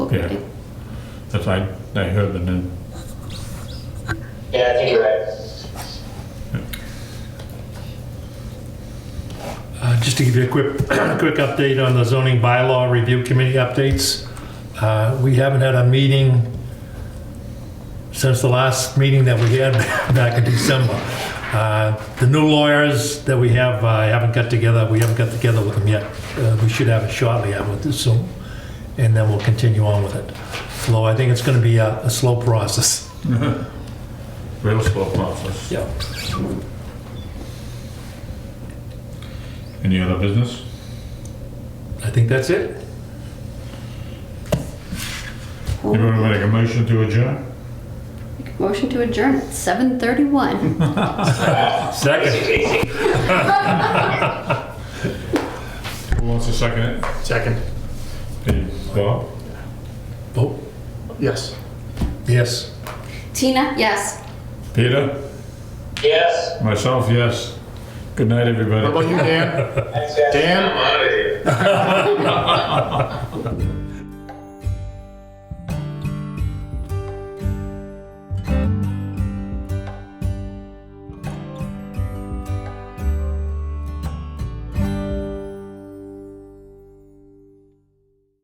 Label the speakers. Speaker 1: Yeah, that's I, I heard the name.
Speaker 2: Yeah, I think you're right.
Speaker 3: Uh, Just to give you a quick, quick update on the zoning bylaw review committee updates. Uh, We haven't had a meeting since the last meeting that we had back in December. Uh, The new lawyers that we have, I haven't got together, we haven't got together with them yet. Uh, We should have it shortly, I would assume, and then we'll continue on with it. Although I think it's going to be a a slow process.
Speaker 1: Real slow process.
Speaker 3: Yep.
Speaker 1: Any other business?
Speaker 3: I think that's it.
Speaker 1: Anyone want to make a motion to adjourn?
Speaker 4: Motion to adjourn at 7:31.
Speaker 3: Second.
Speaker 2: Easy peasy.
Speaker 1: Who wants to second it?
Speaker 5: Second.
Speaker 1: Hey, Bob?
Speaker 3: Vote.
Speaker 5: Yes.
Speaker 3: Oh, Yes.
Speaker 4: Tina, yes.
Speaker 1: Peter?
Speaker 2: Yes.
Speaker 1: Myself, yes. Good night, everybody.
Speaker 5: What about you, Dan?
Speaker 2: Thanks, guys.
Speaker 5: Dan?
Speaker 2: I'm out of here.